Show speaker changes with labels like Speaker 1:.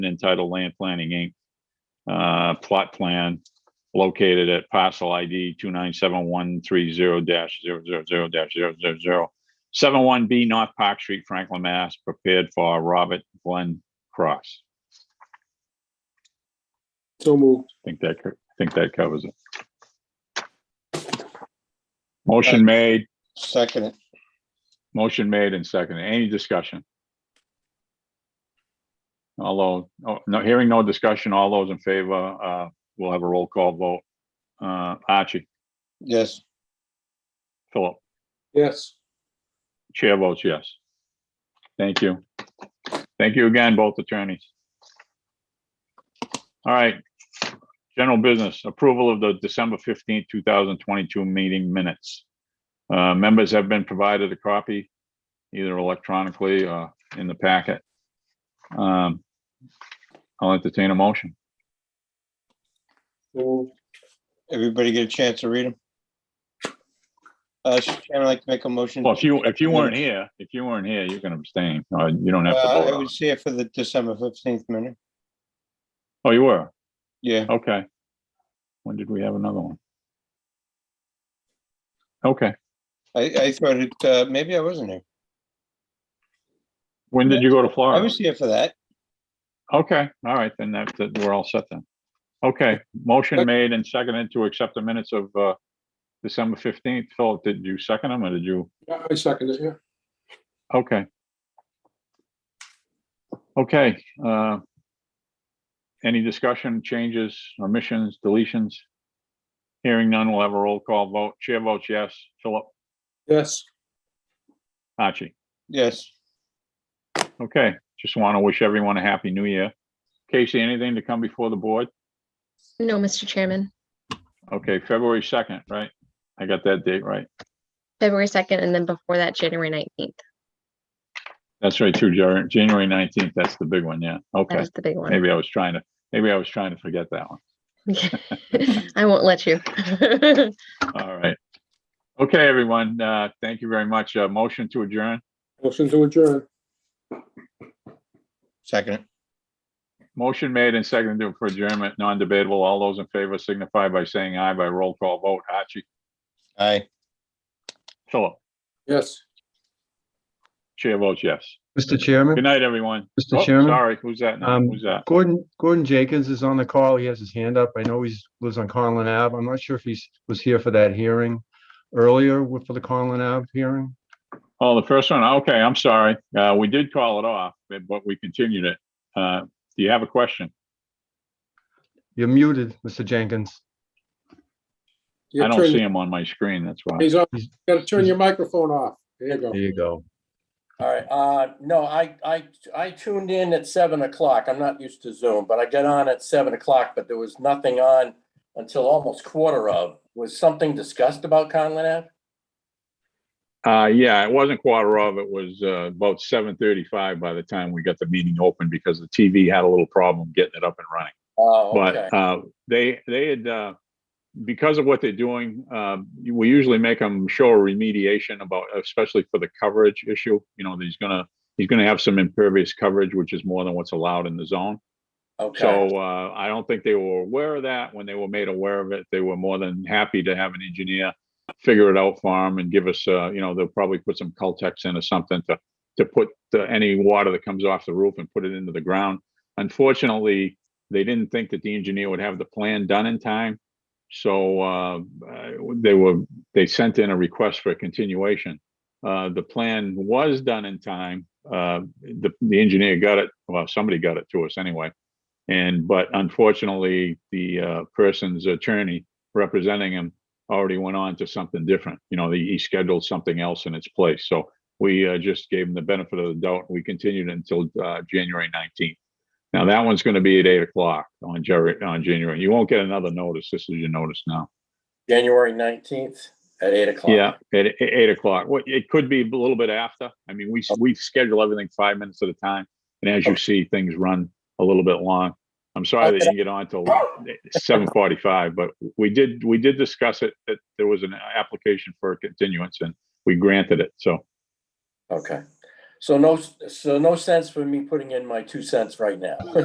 Speaker 1: entitled Land Planning Inc. Uh, plot plan located at parcel ID two nine seven one three zero dash zero zero zero dash zero zero zero seven one B North Park Street, Franklin, Mass, prepared for Robert Glenn Cross.
Speaker 2: So moved.
Speaker 1: I think that, co- I think that covers it. Motion made,
Speaker 2: Second it.
Speaker 1: motion made and seconded. Any discussion? Although, oh, no, hearing no discussion, all those in favor, uh, we'll have a roll call vote. Uh, Archie,
Speaker 2: Yes.
Speaker 1: Philip,
Speaker 2: Yes.
Speaker 1: chair votes yes. Thank you. Thank you again, both attorneys. All right. General business, approval of the December fifteenth, two thousand twenty-two meeting minutes. Uh, members have been provided a copy, either electronically or in the packet. Um, I'll entertain a motion.
Speaker 2: Everybody get a chance to read them? Uh, Mr. Chairman, I'd like to make a motion.
Speaker 1: Well, if you, if you weren't here, if you weren't here, you can abstain, or you don't have to
Speaker 2: Uh,
Speaker 1: vote
Speaker 2: I
Speaker 1: on it.
Speaker 2: was here for the December fifteenth minute.
Speaker 1: Oh, you were?
Speaker 2: Yeah,
Speaker 1: Okay. When did we have another one? Okay,
Speaker 2: I, I thought it, uh, maybe I wasn't here.
Speaker 1: when did you go to
Speaker 2: I
Speaker 1: Florida?
Speaker 2: was here for that.
Speaker 1: Okay, all right, then that, that, we're all set then. Okay, motion
Speaker 2: Okay.
Speaker 1: made and seconded to accept the minutes of, uh, December fifteenth. Philip, did you second them or did you?
Speaker 3: Yeah, I second it, yeah.
Speaker 1: Okay. Okay, uh, any discussion, changes, omissions, deletions? Hearing none, we'll have a roll call vote. Chair votes yes. Philip,
Speaker 3: Yes,
Speaker 1: Archie.
Speaker 2: Yes.
Speaker 1: Okay, just want to wish everyone a happy new year. Casey, anything to come before the board?
Speaker 4: No, Mr. Chairman.
Speaker 1: Okay, February second, right? I got that date right.
Speaker 4: February 2nd, and then before that, January 19th.
Speaker 1: That's right, too, Jan- January nineteenth, that's the big one, yeah.
Speaker 4: That
Speaker 1: Okay,
Speaker 4: was the big one.
Speaker 1: maybe I was trying to, maybe I was trying to forget that one.
Speaker 4: I won't let you.
Speaker 1: All right. Okay, everyone, uh, thank you very much. Uh, motion to adjourn,
Speaker 3: motion to adjourn.
Speaker 2: Second.
Speaker 1: motion made and seconded for adjournment, non-debatable. All those in favor signify by saying aye by roll call vote. Archie,
Speaker 2: Aye.
Speaker 1: Philip,
Speaker 3: Yes.
Speaker 1: chair votes yes.
Speaker 5: Mr.
Speaker 1: Good
Speaker 5: Chairman,
Speaker 1: night, everyone.
Speaker 5: Mr.
Speaker 1: Oh,
Speaker 5: Chairman,
Speaker 1: Sorry, who's that now?
Speaker 5: Um,
Speaker 1: Who's that?
Speaker 5: Gordon, Gordon Jenkins is on the call. He has his hand up. I know he's, lives on Conlin Ave. I'm not sure if he's, was here for that hearing earlier with- for the Conlin Ave hearing.
Speaker 1: Oh, the first one? Okay, I'm sorry. Uh, we did call it off, but- but we continued it. Uh, do you have a question?
Speaker 5: You're muted, Mr. Jenkins.
Speaker 3: You
Speaker 1: I don't
Speaker 3: turn-
Speaker 1: see him on my screen, that's why.
Speaker 3: He's on,
Speaker 5: He's-
Speaker 3: gotta turn your microphone off. There you go.
Speaker 5: There you go.
Speaker 6: All right, uh, no, I, I, I tuned in at seven o'clock. I'm not used to Zoom, but I got on at seven o'clock, but there was nothing on until almost quarter of. Was something discussed about Conlin Ave?
Speaker 1: Uh, yeah, it wasn't quarter of, it was, uh, about seven thirty-five by the time we got the meeting open because the TV had a little problem getting it up and running.
Speaker 6: Oh, okay.
Speaker 1: But, uh, they, they had, uh, because of what they're doing, uh, we usually make them show a remediation about, especially for the coverage issue. You know, that he's gonna, he's gonna have some impervious coverage, which is more than what's allowed in the zone.
Speaker 6: Okay,
Speaker 1: So uh, I don't think they were aware of that. When they were made aware of it, they were more than happy to have an engineer figure it out for them and give us, uh, you know, they'll probably put some Cultex in or something to, to put the- any water that comes off the roof and put it into the ground. Unfortunately, they didn't think that the engineer would have the plan done in time. So uh, uh, they were, they sent in a request for a continuation. Uh, The plan was done in time. Uh, The, the engineer got it, well, somebody got it to us anyway. And, but unfortunately, the uh, person's attorney representing him already went on to something different. You know, he he scheduled something else in its place. So we uh, just gave him the benefit of the doubt. We continued until uh, January 19th. Now, that one's going to be at 8 o'clock on January, on January. You won't get another notice. This is your notice now.
Speaker 6: January nineteenth at eight o'clock.
Speaker 1: Yeah, at e- eight o'clock. Well, it could be a little bit after. I mean, we, we schedule everything five minutes at a time. And as you see, things run a little bit long. I'm sorry that you didn't get on till eh, seven forty-five, but we did, we did discuss it, that there was an application for a continuance and we granted it. So,
Speaker 6: Okay, so no, so no sense for me putting in my two cents right now.